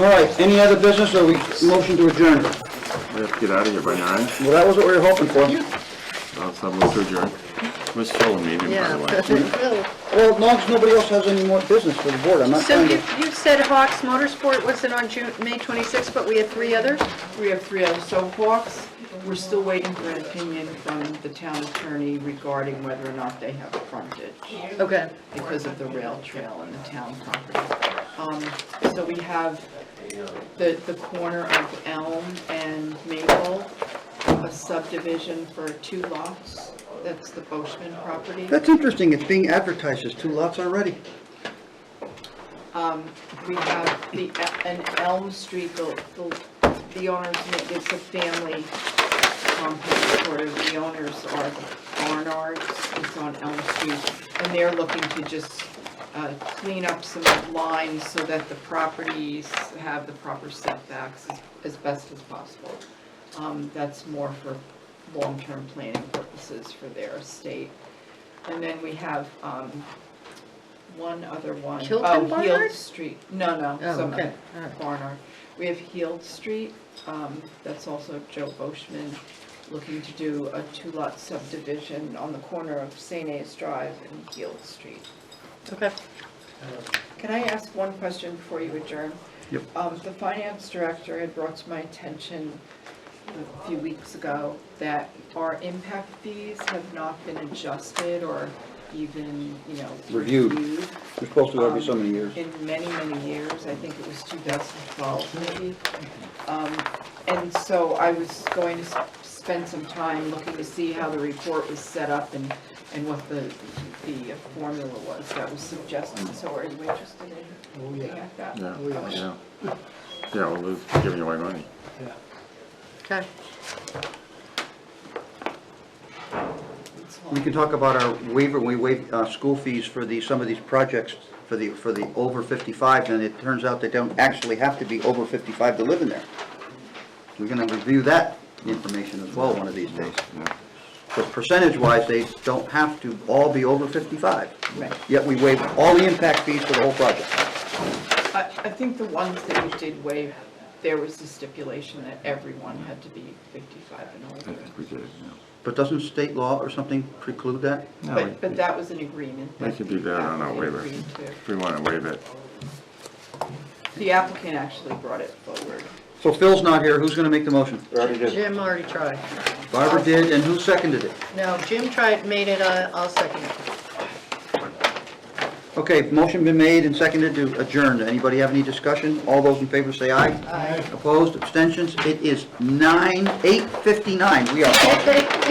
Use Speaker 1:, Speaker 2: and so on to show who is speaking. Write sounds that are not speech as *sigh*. Speaker 1: All right, any other business, or we, motion to adjourn? Well,
Speaker 2: We have to get out of here by nine.
Speaker 1: that was what we were hoping for.
Speaker 2: I'll have a third adjourn. We're still in meeting, by the way.
Speaker 3: Yeah. *laughs*
Speaker 1: Well, as long as nobody else has any more business for the board, I'm not
Speaker 3: So
Speaker 1: trying
Speaker 3: you,
Speaker 1: to...
Speaker 3: you said Hawks Motorsport wasn't on June, May 26th, but we had three others?
Speaker 4: We have three others. So Hawks, we're still waiting for an opinion from the town attorney regarding whether or not they have frontage
Speaker 3: Okay.
Speaker 4: because of the rail trail and the town property. Um, So we have the, the corner of Elm and Maple, a subdivision for two lots. That's the Boschman property.
Speaker 1: That's interesting, it's being advertised as two lots already.
Speaker 4: Um, we have the, an Elm Street, the, the- the owners, it's a family compound, sort of, the owners are the Barnards, it's on Elm Street, and they're looking to just, uh, clean up some lines so that the properties have the proper setbacks as, as best as possible. Um, that's more for long-term planning purposes for their estate. And then we have, um, one other one.
Speaker 3: Chilton
Speaker 4: Oh,
Speaker 3: Barnard?
Speaker 4: Heald Street, no, no,
Speaker 3: Oh,
Speaker 4: some
Speaker 3: okay,
Speaker 4: other
Speaker 3: all right.
Speaker 4: uh, Barnard. We have Heald Street, um, that's also Joe Boschman looking to do a two-lot subdivision on the corner of St. A's Drive and Heald Street.
Speaker 3: Okay.
Speaker 4: Can I ask one question before you adjourn?
Speaker 1: Yep.
Speaker 4: Um, the finance director had brought to my attention a few weeks ago that our impact fees have not been adjusted or even, you know,
Speaker 1: Reviewed.
Speaker 4: reviewed
Speaker 1: We're supposed to have it so many years.
Speaker 4: Um, in many, many years, I think it was 2012 maybe. Um, And so I was going to s- spend some time looking to see how the report was set up and, and what the, the uh, formula was that was suggested. So are you interested in looking at that?
Speaker 2: Yeah,
Speaker 4: Okay.
Speaker 2: yeah. Yeah, well, we're giving away money.
Speaker 3: Okay.
Speaker 4: It's
Speaker 1: We
Speaker 4: all-
Speaker 1: can talk about our waiver, when we waive uh, school fees for the, some of these projects, for the, for the over 55, and it turns out they don't actually have to be over 55 to live in there. We're gonna review that information as well one of these days.
Speaker 2: Yeah.
Speaker 1: Because percentage-wise, they don't have to all be over 55.
Speaker 4: Right.
Speaker 1: Yet we waive all the impact fees for the whole project.
Speaker 4: I, I think the ones that you did waive, there was the stipulation that everyone had to be 55 and
Speaker 2: I
Speaker 4: older.
Speaker 2: think we did, yeah.
Speaker 1: But doesn't state law or something preclude that?
Speaker 2: No, we-
Speaker 4: But, but that was an agreement.
Speaker 2: We could do that on our
Speaker 4: way.
Speaker 2: waiver. If we want to waive it,
Speaker 4: The applicant actually brought it forward.
Speaker 1: So Phil's not here, who's gonna make the motion?
Speaker 3: Jim already tried.
Speaker 1: Barbara did, and who seconded it?
Speaker 3: No, Jim tried, made it, uh, I'll second it.
Speaker 1: Okay, motion been made and seconded to adjourn. Anybody have any discussion? All those in favor say aye. Aye. Opposed, abstentions? It is nine, 8:59. We are off.